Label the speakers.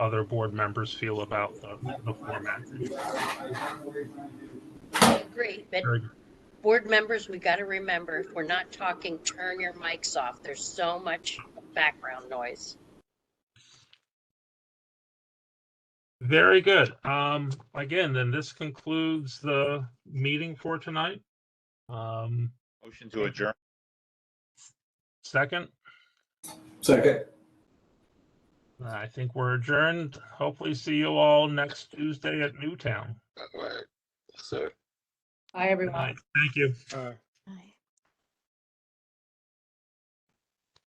Speaker 1: other board members feel about the, the format.
Speaker 2: I agree, but
Speaker 1: Very good.
Speaker 2: board members, we got to remember, if we're not talking, turn your mics off. There's so much background noise.
Speaker 1: Very good. Um, again, then this concludes the meeting for tonight. Um,
Speaker 3: Motion to adjourn.
Speaker 1: second,
Speaker 4: Second.
Speaker 1: I think we're adjourned. Hopefully see you all next Tuesday at Newtown.
Speaker 5: All right. So.
Speaker 2: Hi,
Speaker 1: Good
Speaker 2: everyone.
Speaker 1: night. Thank you.
Speaker 6: All right.